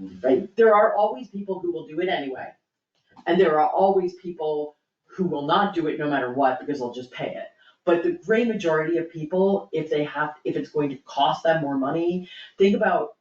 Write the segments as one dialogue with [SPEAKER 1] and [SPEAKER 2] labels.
[SPEAKER 1] Right.
[SPEAKER 2] there are always people who will do it anyway. And there are always people who will not do it no matter what, because they'll just pay it. But the great majority of people, if they have, if it's going to cost them more money, think about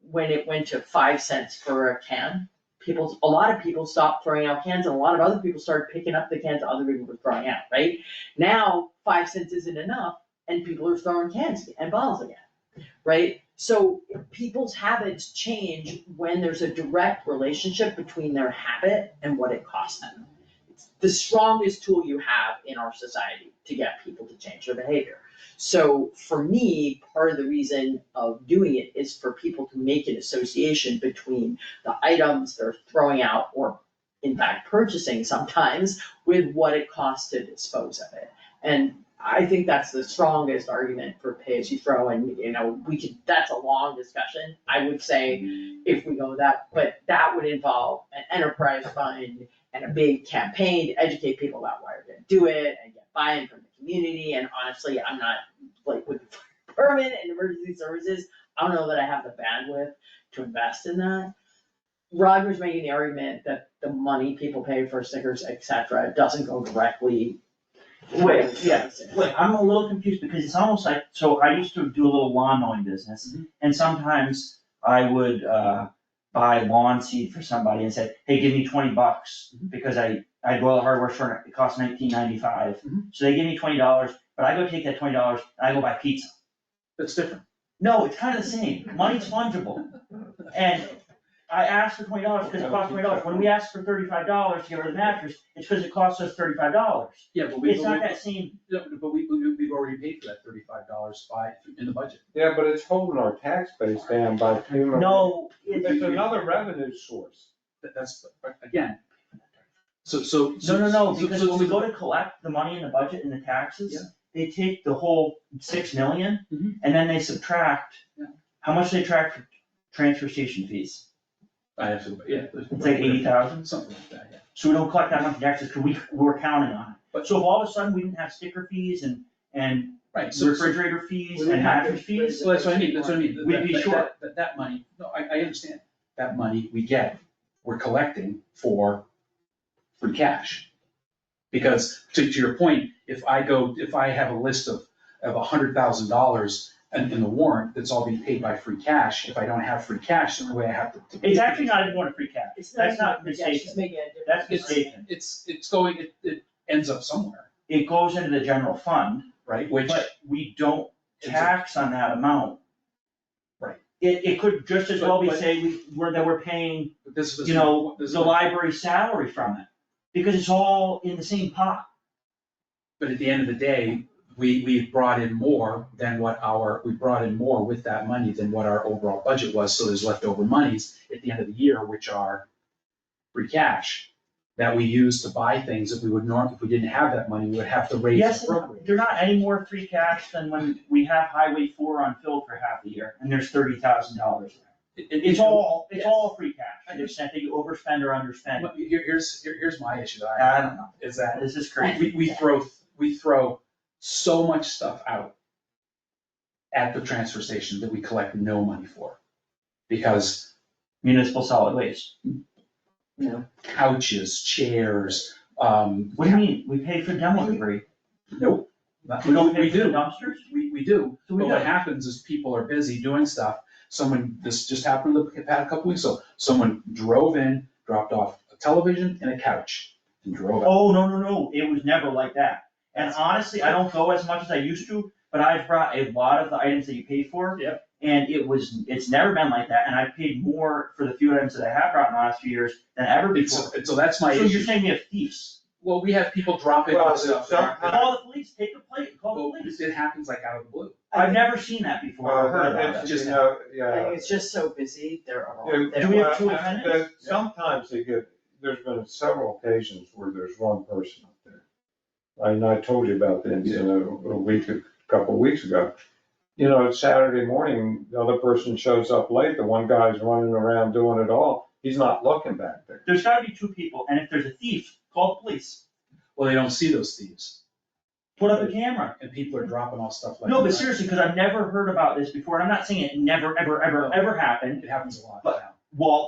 [SPEAKER 2] when it went to five cents for a can. People, a lot of people stopped throwing out cans and a lot of other people started picking up the cans that other people were throwing out, right? Now, five cents isn't enough and people are throwing cans and bottles again, right? So people's habits change when there's a direct relationship between their habit and what it costs them. It's The strongest tool you have in our society to get people to change their behavior. So for me, part of the reason of doing it is for people to make an association between the items they're throwing out or in fact purchasing sometimes with what it costs to dispose of it. And I think that's the strongest argument for pay as you throw and, you know, we could, that's a long discussion. I would say if we go with that, but that would involve an enterprise fund and a big campaign to educate people about why we're gonna do it and get buy-in from the community. And honestly, I'm not like with the permit and emergency services, I don't know that I have the bandwidth to invest in that. Roger's making the argument that the money people pay for stickers, et cetera, doesn't go directly.
[SPEAKER 1] Wait, yeah,
[SPEAKER 2] yes.
[SPEAKER 1] wait, I'm a little confused because it's almost like, so I used to do a little lawn mowing business. And sometimes I would, uh, buy lawn seed for somebody and say, hey, give me twenty bucks. Because I, I do all the hard work for, it It costs nineteen ninety-five.
[SPEAKER 3] Mhm.
[SPEAKER 1] So they give me twenty dollars, but I go take that twenty dollars and I go buy pizza.
[SPEAKER 3] That's different.
[SPEAKER 1] No, it's kind of the same, money's fungible. And I asked for twenty dollars because it costs twenty dollars, when we ask for thirty-five dollars to get rid of the mattress, it's because it costs us thirty-five dollars.
[SPEAKER 3] Yeah, but we,
[SPEAKER 1] It's not that
[SPEAKER 3] but
[SPEAKER 1] same,
[SPEAKER 3] we, but we, we've already paid for that thirty-five dollars by, in the budget.
[SPEAKER 4] Yeah, but it's holding our tax base down by payment.
[SPEAKER 1] no,
[SPEAKER 4] It's another revenue source.
[SPEAKER 3] That, that's, but again, so, so.
[SPEAKER 1] no, no, no,
[SPEAKER 3] so-
[SPEAKER 1] because
[SPEAKER 3] so-
[SPEAKER 1] when we
[SPEAKER 3] so-
[SPEAKER 1] go to collect the money in the budget and the taxes, they take the whole six million,
[SPEAKER 3] Mhm.
[SPEAKER 1] and then they subtract,
[SPEAKER 3] Yeah.
[SPEAKER 1] how much they track for transfer station fees,
[SPEAKER 3] I have to, yeah.
[SPEAKER 1] it's like eighty thousand,
[SPEAKER 3] Something like that, yeah.
[SPEAKER 1] so we don't collect that much in taxes, because we, we're counting on it.
[SPEAKER 3] But-
[SPEAKER 1] So if all of a sudden we didn't have sticker fees and, and
[SPEAKER 3] Right, so. so-
[SPEAKER 1] refrigerator fees
[SPEAKER 4] We would
[SPEAKER 1] and
[SPEAKER 4] have to
[SPEAKER 1] mattress fees,
[SPEAKER 3] Well, that's what I mean, that's what I mean. that-
[SPEAKER 1] We'd be
[SPEAKER 3] that-
[SPEAKER 1] short.
[SPEAKER 3] That, that- that money, no, I, I understand, that money we get, we're collecting for free cash. Because to, to your point, if I go, if I have a list of, of a hundred thousand dollars in, in the warrant, that's all being paid by free cash, if I don't have free cash, the way I have to.
[SPEAKER 1] it's actually not even going to free cash, that's not
[SPEAKER 2] Yeah, she's
[SPEAKER 1] mistaken,
[SPEAKER 2] making a different.
[SPEAKER 1] that's
[SPEAKER 3] It's,
[SPEAKER 1] mistaken,
[SPEAKER 3] it's, it's going, it, it ends up somewhere,
[SPEAKER 1] it goes into the general fund,
[SPEAKER 3] right, which,
[SPEAKER 1] But we don't tax on that amount.
[SPEAKER 3] Right.
[SPEAKER 1] It, it could just as well be
[SPEAKER 3] But- but-
[SPEAKER 1] say we, we're, that we're paying,
[SPEAKER 3] this is.
[SPEAKER 1] you know,
[SPEAKER 3] this is-
[SPEAKER 1] the library salary from it, because it's all in the same pot.
[SPEAKER 3] But at the end of the day, we, we brought in more than what our, we brought in more with that money than what our overall budget was, so there's leftover monies at the end of the year, which are free cash, that we use to buy things that we would norm, if we didn't have that money, we would have to raise
[SPEAKER 1] Yes,
[SPEAKER 3] appropriately.
[SPEAKER 1] they're not any more free cash than when we have Highway four unfilled for half a year, and there's thirty thousand dollars.
[SPEAKER 3] It- it-
[SPEAKER 1] It's all, it's
[SPEAKER 3] Yes.
[SPEAKER 1] all free cash,
[SPEAKER 3] I
[SPEAKER 1] to the extent that you overspend or underspend,
[SPEAKER 3] But here- here's, here- here's my issue that I have,
[SPEAKER 1] I don't know,
[SPEAKER 3] is that
[SPEAKER 1] this is crazy.
[SPEAKER 3] we, we throw, we throw so much stuff out at the transfer station that we collect no money for. Because
[SPEAKER 1] Municipal solid waste,
[SPEAKER 3] couches, chairs, um.
[SPEAKER 1] what do you mean, we pay for demo debris,
[SPEAKER 3] Nope. not-
[SPEAKER 1] we don't
[SPEAKER 3] We
[SPEAKER 1] pay for
[SPEAKER 3] do,
[SPEAKER 1] dumpsters?
[SPEAKER 3] we, we do,
[SPEAKER 1] So
[SPEAKER 3] but
[SPEAKER 1] we
[SPEAKER 3] what
[SPEAKER 1] don't.
[SPEAKER 3] happens is people are busy doing stuff, someone, this just happened a couple weeks ago, someone drove in, dropped off a television and a couch, and drove out.
[SPEAKER 1] Oh, no, no, no, it was never like that. And honestly, I don't go as much as I used to, but I've brought a lot of the items that you pay for.
[SPEAKER 3] Yep.
[SPEAKER 1] And it was, it's never been like that, and I've paid more for the few items that I have brought in the last few years than ever Oh, before.
[SPEAKER 3] It's- and so that's
[SPEAKER 1] So
[SPEAKER 3] my
[SPEAKER 1] you're
[SPEAKER 3] issue,
[SPEAKER 1] saying we have thieves?
[SPEAKER 3] well, we have people dropping
[SPEAKER 4] Well,
[SPEAKER 3] off stuff. that
[SPEAKER 4] some-
[SPEAKER 3] aren't-
[SPEAKER 1] Call the police, take the plate, call
[SPEAKER 3] Well,
[SPEAKER 1] the police.
[SPEAKER 3] It happens like out of the blue.
[SPEAKER 1] I've never seen that before, or heard
[SPEAKER 4] Uh,
[SPEAKER 1] about
[SPEAKER 4] it's,
[SPEAKER 1] it.
[SPEAKER 4] you know, yeah.
[SPEAKER 2] Like, it's just so busy, there are.
[SPEAKER 4] Yeah,
[SPEAKER 1] Do we have
[SPEAKER 4] well,
[SPEAKER 1] two
[SPEAKER 4] I-
[SPEAKER 1] offenders?
[SPEAKER 4] there- Sometimes they get, there's been several occasions where there's one person up there. And I told you about the incident a a week, a couple of weeks ago. You know, it's Saturday morning, the other person shows up late, the one guy's running around doing it all, he's not looking back there.
[SPEAKER 1] There's gotta be two people, and if there's a thief, call the police,
[SPEAKER 3] Well, they don't see those thieves,
[SPEAKER 1] put up a camera.
[SPEAKER 3] and people are dropping off stuff like that.
[SPEAKER 1] No, but seriously, cause I've never heard about this before, and I'm not saying it never, ever, ever, ever happened.
[SPEAKER 3] It happens a lot
[SPEAKER 1] But-
[SPEAKER 3] now.
[SPEAKER 1] Well,